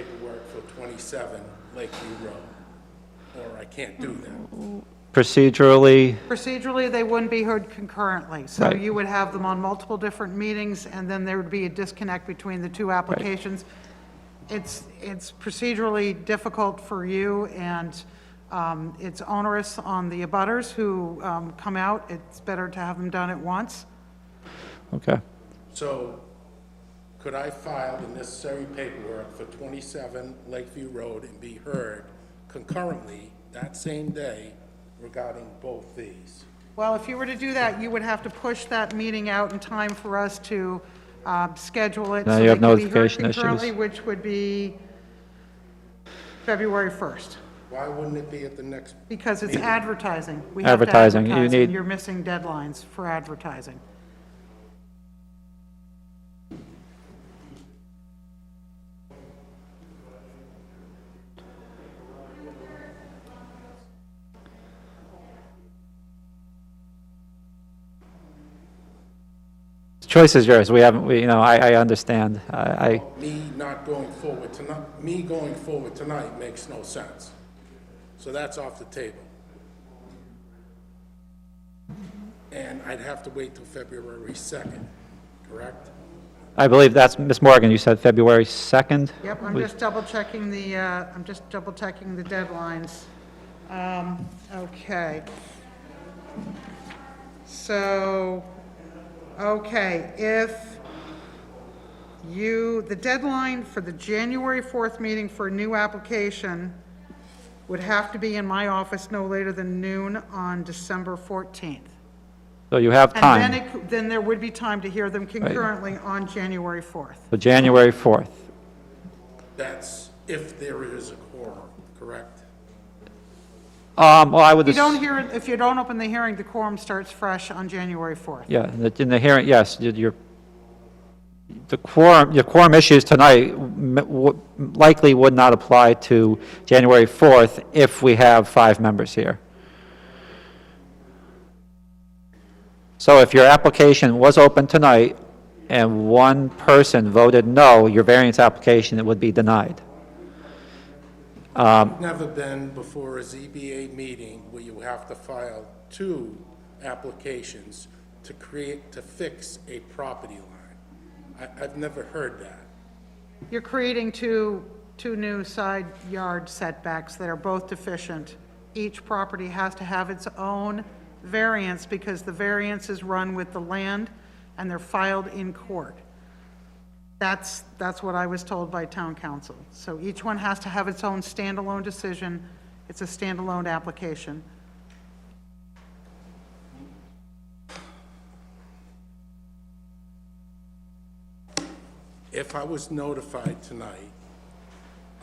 paperwork for 27 Lakeview Road, or I can't do that. Procedurally, Procedurally, they wouldn't be heard concurrently. So Right. you would have them on multiple different meetings, and then there would be a disconnect between the two applications. It's, it's procedurally difficult for you, and um, it's onerous on the abutters who um, come out. It's better to have them done at once. okay. So could I file the necessary paperwork for 27 Lakeview Road and be heard concurrently that same day regarding both these? Well, if you were to do that, you would have to push that meeting out in time for us to uh, schedule it. Now so you they have can be heard notification issues. concurrently, Which would be February 1st. Why wouldn't it be at the next, Because it's advertising. We have to Advertising, you advertise, and need- You're missing deadlines for advertising. Choice is yours. We haven't, we, you know, I, I understand. I, I, me not going forward tonight, me going forward tonight makes no sense. So that's off the table. And I'd have to wait till February 2nd, correct? I believe that's, Ms. Morgan, you said February 2nd? Yep, I'm We- just double checking the, uh, I'm just double checking the deadlines. Um, Okay. So, okay, if you, the deadline for the January 4th meeting for a new application would have to be in my office no later than noon on December 14th. So you have And then time, it, cou- then there would be time to hear them concurrently on January 4th. so January 4th. That's if there is a quorum, correct? Um, well, I would, If you don't ass- hear, it- if you don't open the hearing, the quorum starts fresh on January 4th. yeah, in the- in the hearing, yes, you- your, the quorum, your quorum issues tonight m- w- likely would not apply to January 4th if we have five members here. So if your application was open tonight and one person voted no, your variance application would be denied. Never been before a ZBA meeting where you have to file two applications to create, to fix a property line. I, I've never heard that. You're creating two, two new side yard setbacks that are both deficient. Each property has to have its own variance because the variance is run with the land and they're filed in court. That's, that's what I was told by town council. So each one has to have its own standalone decision. It's a standalone application. If I was notified tonight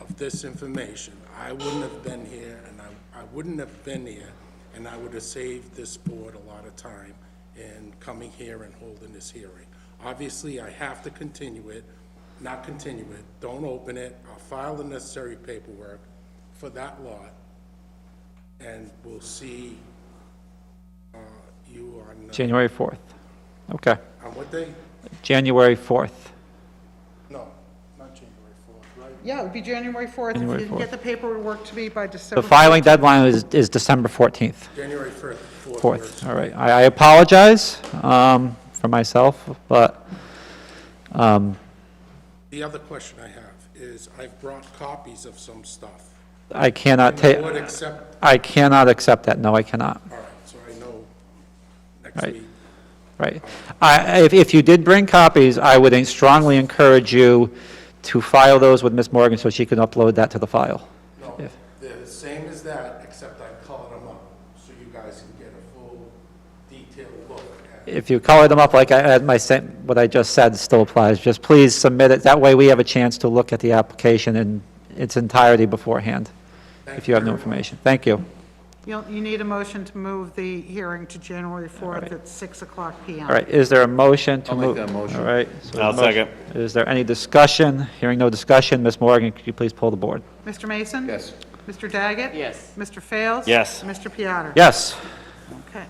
of this information, I wouldn't have been here, and I, I wouldn't have been here, and I would have saved this board a lot of time in coming here and holding this hearing. Obviously, I have to continue it, not continue it, don't open it, I'll file the necessary paperwork for that lot, and we'll see, uh, you on, uh, January 4th. Okay, on what day? January 4th. No, not January fourth, right? Yeah, it would be January 4th. If you January didn't get the paperwork to me by December. The filing deadline is, is December 14th. January first, fourth. works. 4th, all right. I I apologize um, for myself, but, um, The other question I have is, I've brought copies of some stuff. I cannot I would ta, accept, I cannot accept that, no, I cannot, all right, so I know next Right. week. right. I, if, if you did bring copies, I would strongly encourage you to file those with Ms. Morgan so she can upload that to the file. No, they're the same as that, except I colored them up, so you guys can get a full detailed look at If you color them up like I, at my, sen- what I just said still applies, just please submit it, that way we have a chance to look at the application in its entirety beforehand, if you have new information. Thank you. You'll, you need a motion to move the hearing to January 4th at 6 o'clock PM. All right, is there a motion to I'll make move? that motion. All right. so I'll the motion- Is there any discussion? Hearing no discussion, Ms. Morgan, could you please pull the board? Mr. Mason? Yes. Mr. Daggett? Yes. Mr. Fails? Yes. Mr. Piattar? Yes. Okay.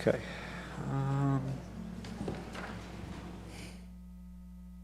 Okay. Um,